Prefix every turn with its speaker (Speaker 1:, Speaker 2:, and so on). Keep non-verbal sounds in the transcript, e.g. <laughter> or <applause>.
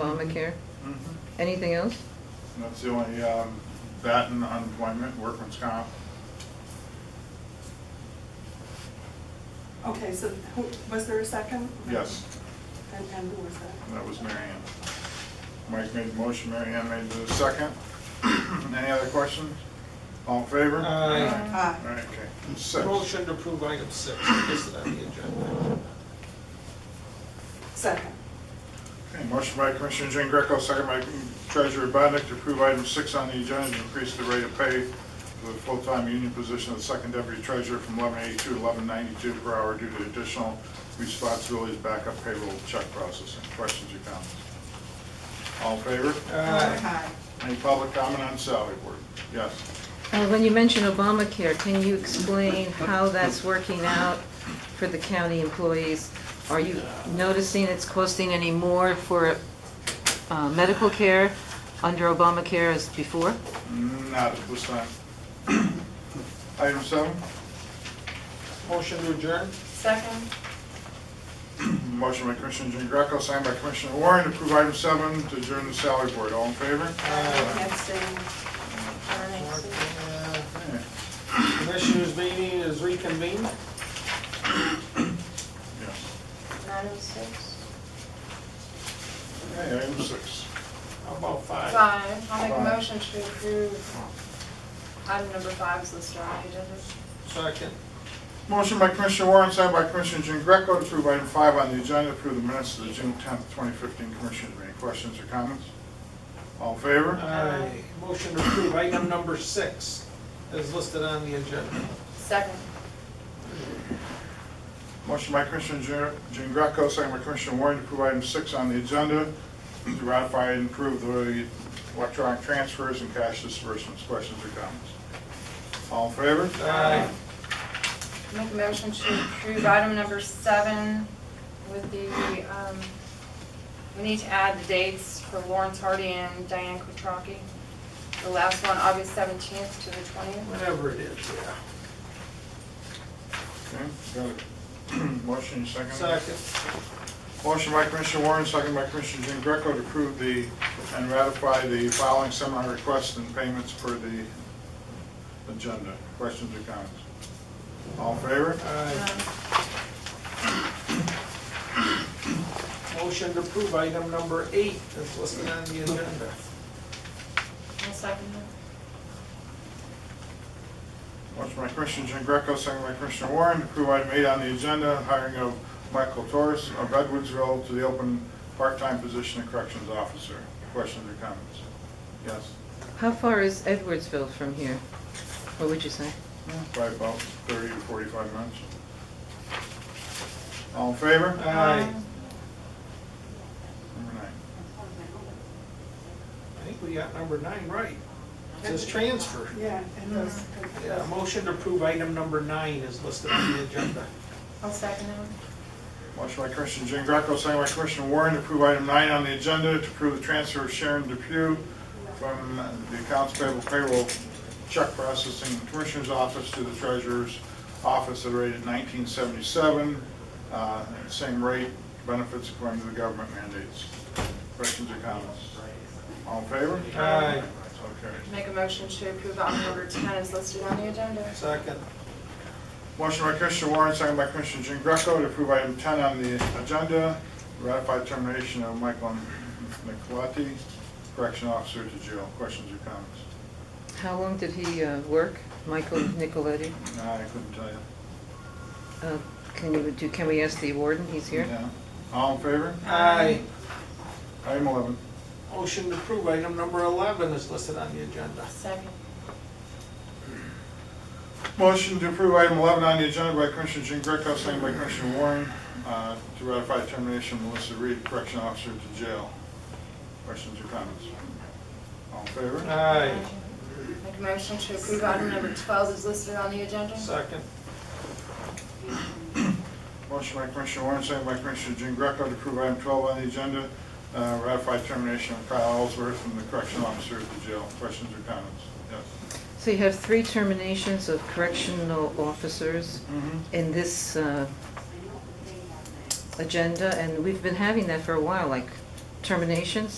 Speaker 1: Obamacare. Anything else?
Speaker 2: Mm-hmm. That's the only, um, that and unemployment, workman's comp.
Speaker 3: Okay, so who, was there a second?
Speaker 2: Yes,
Speaker 3: And, and who was that?
Speaker 2: that was Mary Ann. Mike made the motion, Mary Ann made the second. <clears throat> Any other questions? All in favor?
Speaker 4: Aye.
Speaker 3: Aye.
Speaker 2: All right, okay. Six.
Speaker 4: Motion to approve item six is listed on the agenda.
Speaker 3: Second.
Speaker 2: Okay, motion by Commissioner Jean Greco, second by Treasurer Bodnar to approve item six on the agenda to increase the rate of pay for the full-time union position of the second deputy treasurer from eleven eighty-two to eleven ninety-two per hour due to additional responsibilities, backup payroll, check processing. Questions or comments? All in favor?
Speaker 3: Uh.
Speaker 4: Aye.
Speaker 2: Any public comment on salary board? Yes.
Speaker 1: Uh, When you mention Obamacare, can you explain how that's working out for the county employees? Are you noticing it's costing any more for uh, medical care under Obamacare as before?
Speaker 2: Not at this time. <clears throat> Item seven,
Speaker 4: Motion to adjourn?
Speaker 3: Second.
Speaker 2: motion by Commissioner Jean Greco, signed by Commissioner Warren to approve item seven to adjourn the salary board. All in favor?
Speaker 4: Uh,
Speaker 2: Okay.
Speaker 4: Commissioners meeting is reconvened.
Speaker 2: Yes.
Speaker 5: Nine oh six?
Speaker 2: Okay, item six.
Speaker 4: How about five?
Speaker 5: Five, I'll make
Speaker 2: Five.
Speaker 5: a motion to approve item number five is listed on the agenda.
Speaker 4: Second.
Speaker 2: Motion by Commissioner Warren, signed by Commissioner Jean Greco to approve item five on the agenda, approve the minutes of the June tenth, twenty fifteen Commissioners meeting. Questions or comments? All in favor?
Speaker 4: Aye. Motion to approve item number six is listed on the agenda.
Speaker 5: Second.
Speaker 2: Motion by Commissioner Jean- Jean Greco, signed by Commissioner Warren to approve item six on the agenda, to ratify and approve the electronic transfers and cash disbursements. Questions or comments? All in favor?
Speaker 4: Aye.
Speaker 5: Make a motion to approve item number seven with the, um, we need to add the dates for Lawrence Hardy and Diane Quattrocki. The last one, August seventeenth to the twentieth.
Speaker 4: Whatever it is, yeah.
Speaker 2: Okay, got it. <clears throat> Motion, second?
Speaker 4: Second.
Speaker 2: Motion by Commissioner Warren, second by Commissioner Jean Greco to approve the, and ratify the following seminar requests and payments per the agenda. Questions or comments? All in favor?
Speaker 4: Aye. Motion to approve item number eight is listed on the agenda.
Speaker 5: I'll second that.
Speaker 2: Motion by Commissioner Jean Greco, second by Commissioner Warren to approve item eight on the agenda, hiring of Michael Torres of Edwardsville to the open part-time position of corrections officer. Questions or comments? Yes?
Speaker 1: How far is Edwardsville from here? What would you say?
Speaker 2: By about thirty to forty-five minutes. All in favor?
Speaker 4: Aye.
Speaker 2: Number nine.
Speaker 4: I think we got number nine right. It says transfer.
Speaker 3: Yeah, and those.
Speaker 4: Yeah, motion to approve item number nine is listed on the agenda.
Speaker 5: I'll second that.
Speaker 2: Motion by Commissioner Jean Greco, second by Commissioner Warren to approve item nine on the agenda to approve the transfer of Sharon Depew from the accounts payable payroll check processing commissioner's office to the treasurer's office at a rate of nineteen seventy-seven. Uh, same rate, benefits according to the government mandates. Questions or comments? All in favor?
Speaker 4: Aye.
Speaker 2: So carried.
Speaker 5: Make a motion to approve item number ten is listed on the agenda.
Speaker 4: Second.
Speaker 2: Motion by Commissioner Warren, second by Commissioner Jean Greco to approve item 10 on the agenda, ratify termination of Michael Nicoletti, correction officer to jail. Questions or comments?
Speaker 1: How long did he uh, work, <clears throat> Michael Nicoletti?
Speaker 2: No, I couldn't tell you.
Speaker 1: Uh, Can you, do? can we ask the warden? He's here.
Speaker 2: No. All in favor?
Speaker 4: Aye.
Speaker 2: Item 11.
Speaker 4: Motion to approve item number 11 is listed on the agenda.
Speaker 5: Second.
Speaker 2: Motion to approve item 11 on the agenda by Commissioner Jean Greco, second by Commissioner Warren, uh, to ratify termination of Melissa Reed, correction officer to jail. Questions or comments? All in favor?
Speaker 4: Aye.
Speaker 5: Make a motion to approve item number 12 is listed on the agenda.
Speaker 4: Second.
Speaker 2: Motion by Commissioner Warren, second by Commissioner Jean Greco to approve item 12 on the agenda, uh, ratify termination of Kyle Ellsworth from the correction officer at the jail. Questions or comments? Yes.
Speaker 1: So you have three terminations of correctional officers in this uh, agenda, and we've been having that for a while, like terminations?